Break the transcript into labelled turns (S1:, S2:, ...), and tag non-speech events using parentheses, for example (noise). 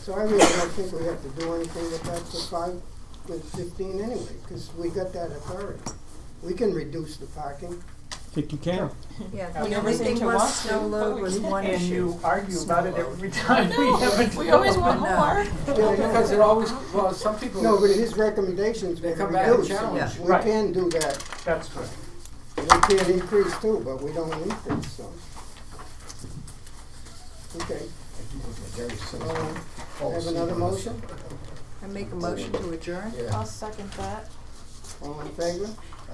S1: So I really don't think we have to do anything with that for five, with fifteen anyway, because we got that authority. We can reduce the parking.
S2: Think you can?
S3: Yeah,
S4: Uh,
S3: the only
S4: everything
S3: thing
S4: to
S3: was
S4: us,
S3: snow
S4: we-
S3: load
S4: (laughs)
S3: was one
S4: And
S3: issue.
S4: you argue about it
S1: Snow
S4: every time we have a.
S5: We always want
S3: No.
S5: more.
S1: No,
S5: Because it always, well, some people.
S1: but his recommendations
S5: They
S1: were
S5: come back and
S1: reduced.
S5: challenge.
S1: We
S4: Right.
S1: can do that.
S4: That's good.
S1: We can increase too, but we don't increase, so. Okay, um, have another motion?
S3: I make a motion to adjourn?
S5: I'll second that.
S1: All in favor?